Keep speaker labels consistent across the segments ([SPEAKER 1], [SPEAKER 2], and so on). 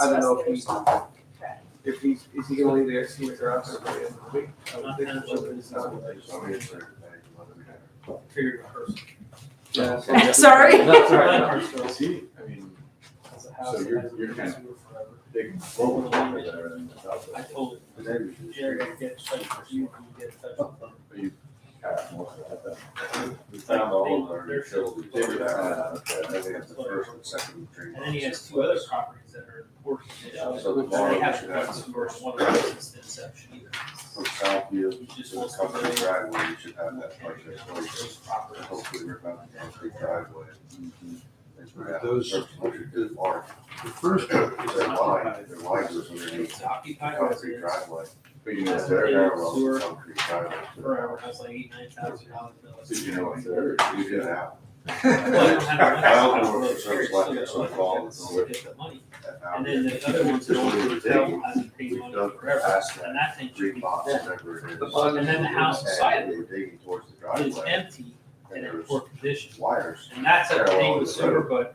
[SPEAKER 1] I don't know if
[SPEAKER 2] discuss
[SPEAKER 1] he's,
[SPEAKER 2] the other
[SPEAKER 1] if he's, is he gonna leave the estimate or out there by the end of the week? I would think so, but it's not really Figured out first. Yeah, so-
[SPEAKER 2] stuff. Sorry.
[SPEAKER 1] That's all right, not first, so-
[SPEAKER 3] See, I mean,
[SPEAKER 4] As a
[SPEAKER 3] So
[SPEAKER 4] house,
[SPEAKER 3] you're-
[SPEAKER 4] it has
[SPEAKER 3] you're
[SPEAKER 4] been
[SPEAKER 3] kind
[SPEAKER 4] consumer forever.
[SPEAKER 3] they can roll with it and everything without
[SPEAKER 4] I
[SPEAKER 3] that.
[SPEAKER 4] told
[SPEAKER 3] The neighbors just-
[SPEAKER 4] Jerry, I'd get in touch with you when you get in touch with them.
[SPEAKER 3] But you have more of that. We found all of our utilities.
[SPEAKER 4] They were there.
[SPEAKER 3] Uh, Then we have the first and second tree.
[SPEAKER 4] And then he has two other properties that are important.
[SPEAKER 3] So the
[SPEAKER 4] But they
[SPEAKER 3] barn
[SPEAKER 4] haven't
[SPEAKER 3] should
[SPEAKER 4] done
[SPEAKER 3] have
[SPEAKER 4] some
[SPEAKER 3] the
[SPEAKER 4] work
[SPEAKER 3] first,
[SPEAKER 4] on one of those since the inception either.
[SPEAKER 3] from Southview
[SPEAKER 4] He just
[SPEAKER 3] to the
[SPEAKER 4] wants to
[SPEAKER 3] company
[SPEAKER 4] build.
[SPEAKER 3] driveway, you should have that project.
[SPEAKER 4] Those properties.
[SPEAKER 3] Hopefully we're about to complete driveway. It's where that
[SPEAKER 5] Those-
[SPEAKER 3] first one is large.
[SPEAKER 5] The first one is
[SPEAKER 3] They're wide, they're wide, so they're
[SPEAKER 4] It's occupied
[SPEAKER 3] concrete
[SPEAKER 4] residence
[SPEAKER 3] driveway. But you know, they're narrow,
[SPEAKER 4] Sewer.
[SPEAKER 3] concrete driveway.
[SPEAKER 4] forever, that's like eight, nine thousand dollars.
[SPEAKER 3] So you know, it's there, you get out.
[SPEAKER 4] Well, I don't have a-
[SPEAKER 3] I don't know if it's sort of like it's sort of all that's on
[SPEAKER 4] Get the money.
[SPEAKER 3] that
[SPEAKER 4] And
[SPEAKER 3] out.
[SPEAKER 4] then the other ones that only tell hasn't paid money forever,
[SPEAKER 3] Past
[SPEAKER 4] and
[SPEAKER 3] that,
[SPEAKER 4] that thing should
[SPEAKER 3] three
[SPEAKER 4] be,
[SPEAKER 3] blocks, whatever it is.
[SPEAKER 1] The bottom
[SPEAKER 4] and then the house beside
[SPEAKER 3] And
[SPEAKER 4] it
[SPEAKER 3] they were digging towards the
[SPEAKER 4] is
[SPEAKER 3] driveway
[SPEAKER 4] empty
[SPEAKER 3] and
[SPEAKER 4] and
[SPEAKER 3] there
[SPEAKER 4] in
[SPEAKER 3] was
[SPEAKER 4] poor condition.
[SPEAKER 3] wires.
[SPEAKER 4] And that's a thing with sewer, but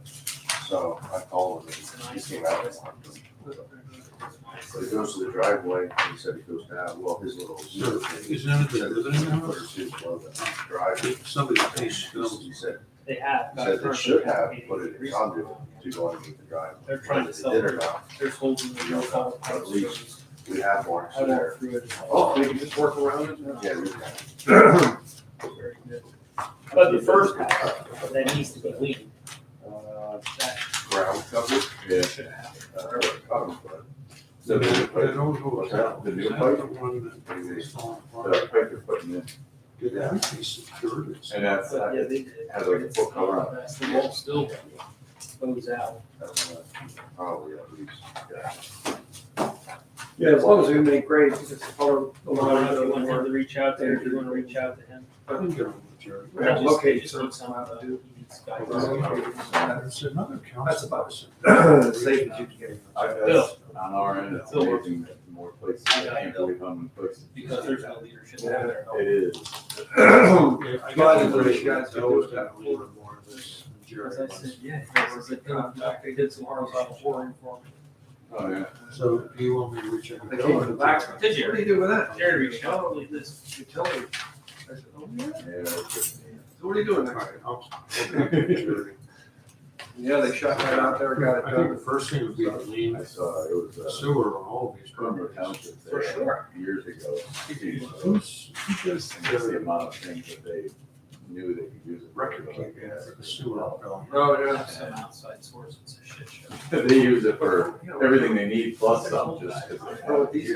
[SPEAKER 3] So I called him
[SPEAKER 4] it's a
[SPEAKER 3] and he
[SPEAKER 4] nice.
[SPEAKER 3] came out and walked him. But he goes to the driveway and he said he goes down, well, his little. sewer thing-
[SPEAKER 5] Is none of the living
[SPEAKER 3] Put
[SPEAKER 5] house?
[SPEAKER 3] his shoes above the driveway.
[SPEAKER 5] Somebody
[SPEAKER 3] He
[SPEAKER 5] pays bills.
[SPEAKER 3] said
[SPEAKER 4] They have.
[SPEAKER 3] He said they should have put it in conduit to go underneath the driveway.
[SPEAKER 4] They're trying to sell
[SPEAKER 3] They did or
[SPEAKER 4] their-
[SPEAKER 3] not,
[SPEAKER 4] There's holes in the real call.
[SPEAKER 3] At least. We have one,
[SPEAKER 4] I
[SPEAKER 3] so there.
[SPEAKER 4] walked through it.
[SPEAKER 1] Oh, we can just work around it now.
[SPEAKER 3] Yeah, we have.
[SPEAKER 4] Very good. But the first house, that needs to be leaned,
[SPEAKER 3] Uh,
[SPEAKER 4] that
[SPEAKER 3] ground cover. uh, Yeah.
[SPEAKER 4] should have.
[SPEAKER 3] So they would
[SPEAKER 5] That
[SPEAKER 3] put,
[SPEAKER 5] old hotel,
[SPEAKER 3] The new
[SPEAKER 5] is that
[SPEAKER 3] place?
[SPEAKER 5] the one that
[SPEAKER 3] Maybe.
[SPEAKER 5] was falling
[SPEAKER 3] the
[SPEAKER 5] apart?
[SPEAKER 3] pipe they're putting in,
[SPEAKER 5] Did that be secured? It's-
[SPEAKER 3] and that's,
[SPEAKER 4] But yeah,
[SPEAKER 3] uh,
[SPEAKER 4] they did.
[SPEAKER 3] Has like a full cover on
[SPEAKER 4] That's The wall still goes out.
[SPEAKER 3] probably at least, yeah.
[SPEAKER 1] Yeah, as long as we make grades, it's just follow the
[SPEAKER 4] I don't
[SPEAKER 1] line.
[SPEAKER 4] know if you want him to reach out there, if you wanna reach out to him.
[SPEAKER 5] I didn't get on with Jerry.
[SPEAKER 1] We have to
[SPEAKER 4] Just-
[SPEAKER 1] locate
[SPEAKER 4] just
[SPEAKER 1] some-
[SPEAKER 4] need some, uh, he needs guidance.
[SPEAKER 3] I've,
[SPEAKER 5] There's another council.
[SPEAKER 1] That's about Safe as you can get.
[SPEAKER 3] that's on our end, it's amazing that more places, I can't believe how many places.
[SPEAKER 4] Because there's no leadership down there.
[SPEAKER 3] It is.
[SPEAKER 5] Yeah, I
[SPEAKER 1] Glad
[SPEAKER 5] got
[SPEAKER 1] that
[SPEAKER 5] the
[SPEAKER 1] those
[SPEAKER 5] ratio
[SPEAKER 1] guys
[SPEAKER 5] of
[SPEAKER 1] are
[SPEAKER 5] those
[SPEAKER 1] doing that.
[SPEAKER 5] and a little bit more of this than Jerry
[SPEAKER 4] As I
[SPEAKER 5] was.
[SPEAKER 4] said, yeah, because it's a contract, they did some horizontal flooring for me.
[SPEAKER 3] Oh, yeah.
[SPEAKER 5] So do you want me to reach out?
[SPEAKER 1] They came in the back.
[SPEAKER 4] Did
[SPEAKER 1] What
[SPEAKER 4] you?
[SPEAKER 1] do you do with that?
[SPEAKER 4] Jerry reached out, only this.
[SPEAKER 1] Utility. I said, oh, yeah.
[SPEAKER 3] Yeah, it's just-
[SPEAKER 1] So what are you doing
[SPEAKER 5] All
[SPEAKER 1] next?
[SPEAKER 5] right, I'll- I'll get with Jerry.
[SPEAKER 1] Yeah, they shot right out there, got it
[SPEAKER 5] I think
[SPEAKER 1] done.
[SPEAKER 5] the first thing would be to
[SPEAKER 3] I
[SPEAKER 5] lean
[SPEAKER 3] saw, it was, uh,
[SPEAKER 5] sewer on all of these
[SPEAKER 3] Cranbrook
[SPEAKER 5] properties.
[SPEAKER 3] Township
[SPEAKER 4] For
[SPEAKER 3] there years ago. And
[SPEAKER 5] Who's, who does
[SPEAKER 3] just the
[SPEAKER 5] the
[SPEAKER 3] amount of things that they knew they could use. it for.
[SPEAKER 5] record keeping for the sewer bill?
[SPEAKER 1] Oh, yeah.
[SPEAKER 4] Some outside source, it's a shit show.
[SPEAKER 3] They use it for everything they need plus some, just. 'cause they have
[SPEAKER 1] Oh, these